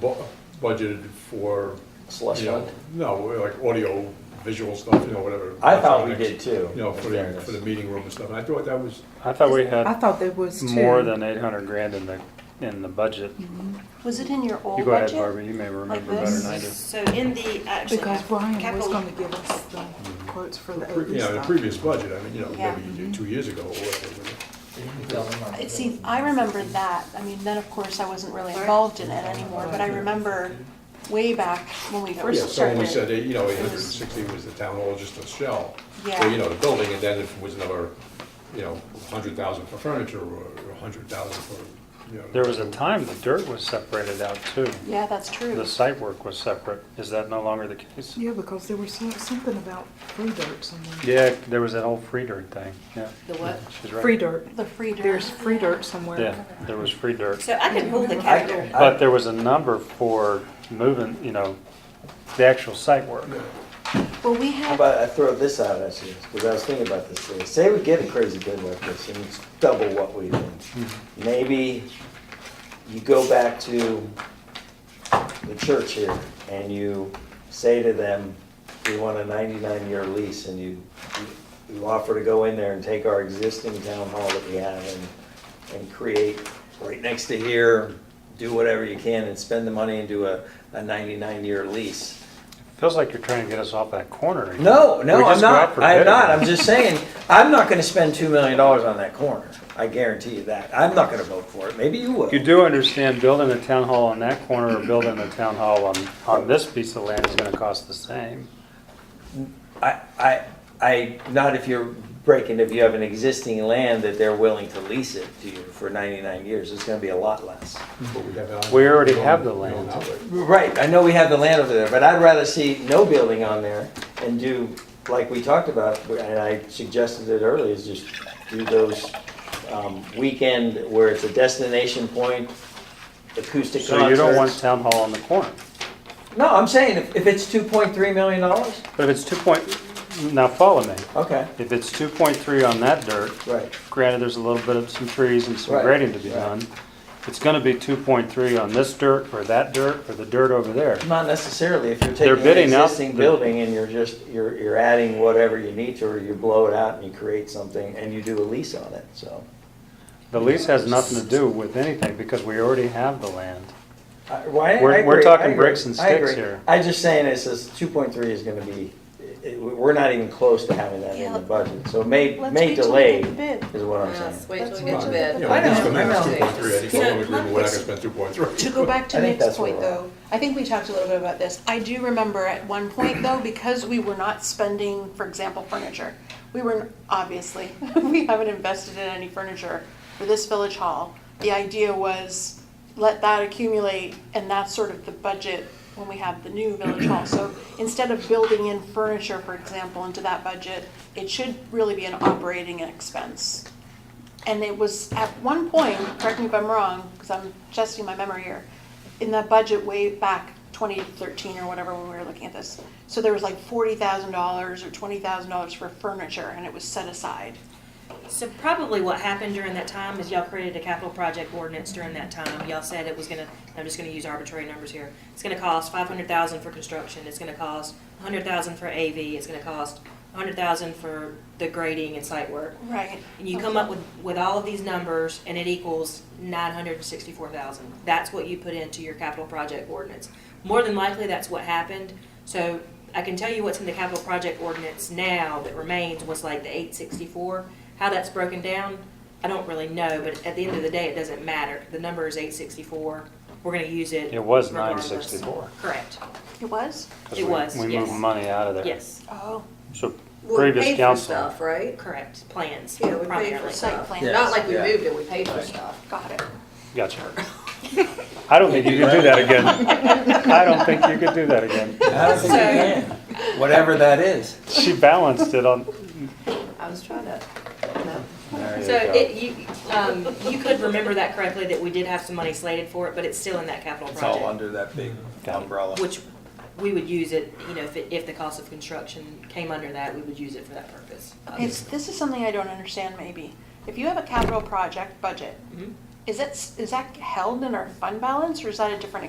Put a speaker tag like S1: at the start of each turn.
S1: bu- budgeted for,
S2: Slush
S1: you know,
S2: fund?
S1: no, like audio visual stuff, you know, whatever.
S2: I thought we
S1: electronics,
S2: did too.
S1: You know, for
S2: in
S1: the,
S2: fairness.
S1: for the meeting room and stuff, and I thought that was,
S3: I thought we
S4: I
S3: had
S4: thought there was two.
S3: more than eight hundred grand in the, in the budget.
S5: Was it in your old
S3: You
S5: budget?
S3: go ahead, Barbara, you may remember better
S5: this?
S3: than I do.
S6: So in the, actually,
S4: Because Brian was
S6: capital-
S4: gonna give us the quotes for the
S1: pre- you
S4: AV
S1: know, the
S4: stuff.
S1: previous budget, I mean, you know,
S6: Yeah.
S1: maybe two years ago or whatever.
S5: It seems, I remember that, I mean, then of course I wasn't really involved in it anymore, but I remember way back when we
S1: Yeah,
S5: first
S1: someone
S5: started.
S1: we said, eh, you know, eight hundred and sixty was the town hall, just a shell.
S5: Yeah.
S1: Or, you know, the building, and then if it was another, you know, hundred thousand for furniture, or a hundred thousand for, you know.
S3: There was a time the dirt was separated out too.
S5: Yeah, that's true.
S3: The site work was separate. Is that no longer the case?
S4: Yeah, because there was some- something about free dirt somewhere.
S3: Yeah, there was that whole free dirt thing, yeah.
S6: The what?
S3: She's right.
S4: Free dirt.
S5: The free dirt.
S4: There's free dirt somewhere.
S3: Yeah, there was free dirt.
S6: so I can hold the
S4: I-
S6: capital.
S3: But there was a number for moving, you know, the actual site work.
S5: Well, we
S2: How
S5: had,
S2: about I throw this out at you, because I was thinking about this today. Say we get a crazy bid like this, and it's double what we think. Maybe you go back to the church here, and you say to them, we want a ninety-nine year lease, and you, you offer to go in there and take our existing town hall that we have and, and create right next to here, do whatever you can, and spend the money and do a, a ninety-nine year lease.
S3: Feels like you're trying to get us off that corner. again.
S2: No,
S3: We
S2: no, I'm
S3: just go out
S2: not.
S3: for
S2: I'm
S3: bid.
S2: not. I'm just saying, I'm not gonna spend two million dollars on that corner. I guarantee you that. I'm not gonna vote for it. Maybe you will.
S3: You do understand building a town hall on that corner or building a town hall on, on this piece of land is gonna cost the same.
S2: I, I, I, not if you're breaking, if you have an existing land that they're willing to lease it to you for ninety-nine years, it's gonna be a lot less.
S1: But we have it on-
S3: We already have the
S1: on- on
S3: land.
S1: outlay.
S2: Right, I know we have the land over there, but I'd rather see no building on there and do, like we talked about, and I suggested it earlier, is just do those um, weekend where it's a destination point, acoustic concerts.
S3: So you don't want town hall on the corner.
S2: No, I'm saying if, if it's two point three million dollars,
S3: But if it's two point, now follow me.
S2: okay,
S3: If it's two point three on that dirt,
S2: right,
S3: granted, there's a little bit of some trees and some
S2: Right,
S3: grading to be
S2: right.
S3: done. It's gonna be two point three on this dirt or that dirt or the dirt over there.
S2: not necessarily if you're
S3: They're
S2: taking an
S3: bidding out
S2: existing
S3: the-
S2: building and you're just, you're, you're adding whatever you need to, or you blow it out and you create something and you do a lease on it, so.
S3: The lease has nothing to do with anything because we already have the land.
S2: I- Uh, Why, I
S3: We're-
S2: agree,
S3: we're
S2: I
S3: talking
S2: agree,
S3: bricks and
S2: I
S3: sticks
S2: agree.
S3: here.
S2: I'm just saying, it says two point three is gonna be, it- it- we're not even close to having that in the
S5: Yeah.
S2: budget, so may,
S5: let's
S2: may
S5: wait till we
S2: delay
S5: get the bid.
S2: is what I'm
S6: Yes,
S2: saying.
S6: wait till we
S1: You
S6: get to bid.
S1: know, at least the
S2: I know.
S1: minimum is 2.3. I think
S6: So,
S1: we're all in agreement, we're not
S6: let's-
S1: gonna spend two point three.
S5: To go back to
S2: I think
S5: Nick's
S2: that's where
S5: point
S2: we're at.
S5: though, I think we talked a little bit about this. I do remember at one point though, because we were not spending, for example, furniture. We were, obviously, we haven't invested in any furniture for this village hall. The idea was let that accumulate and that's sort of the budget when we have the new village hall. So instead of building in furniture, for example, into that budget, it should really be an operating expense. And it was at one point, correct me if I'm wrong, because I'm testing my memory here, in the budget way back 2013 or whatever when we were looking at this. So there was like $40,000 or $20,000 for furniture and it was set aside.
S6: So probably what happened during that time is y'all created a capital project ordinance during that time. Y'all said it was gonna, I'm just gonna use arbitrary numbers here. It's gonna cost five hundred thousand for construction, it's gonna cost a hundred thousand for AV, it's gonna cost a hundred thousand for the grading and site work.
S5: Right.
S6: And you come up with, with all of these numbers and it equals nine hundred and sixty-four thousand. That's what you put into your capital project ordinance. More than likely, that's what happened. So I can tell you what's in the capital project ordinance now that remains was like the eight sixty-four. How that's broken down, I don't really know, but at the end of the day, it doesn't matter. The number is eight sixty-four. We're gonna use it.
S3: It was
S6: regardless.
S3: 964.
S6: Correct.
S5: It was?
S3: 'cause
S6: It
S3: we-
S6: was,
S3: We
S6: yes.
S3: moved money out of there.
S6: Yes,
S5: Oh,
S3: So
S7: Well, we
S3: previous
S7: paid for
S3: council,
S7: stuff, right?
S6: correct. Plans
S7: Yeah, we paid for
S6: primarily.
S5: site
S7: stuff.
S5: plan.
S2: Yes,
S7: Not like we
S2: yeah.
S7: moved it, we paid for stuff.
S5: got it.
S3: gotcha. I don't think you could do that again. I don't think you could do that again.
S2: I don't think you can, whatever that is.
S3: She balanced it on,
S7: I was trying to, no.
S3: there you
S6: So
S3: go.
S6: it, you, um, you could remember that correctly, that we did have some money slated for it, but it's still in that capital project.
S2: that big
S3: Got it.
S6: Which we would use it, you know, if, it- if the cost of construction came under that, we would use it for that purpose. Um,
S5: It's, this is something I don't understand maybe. If you have a capital project budget,
S6: Mhm.
S5: is that, is that held in our fund balance or is that a different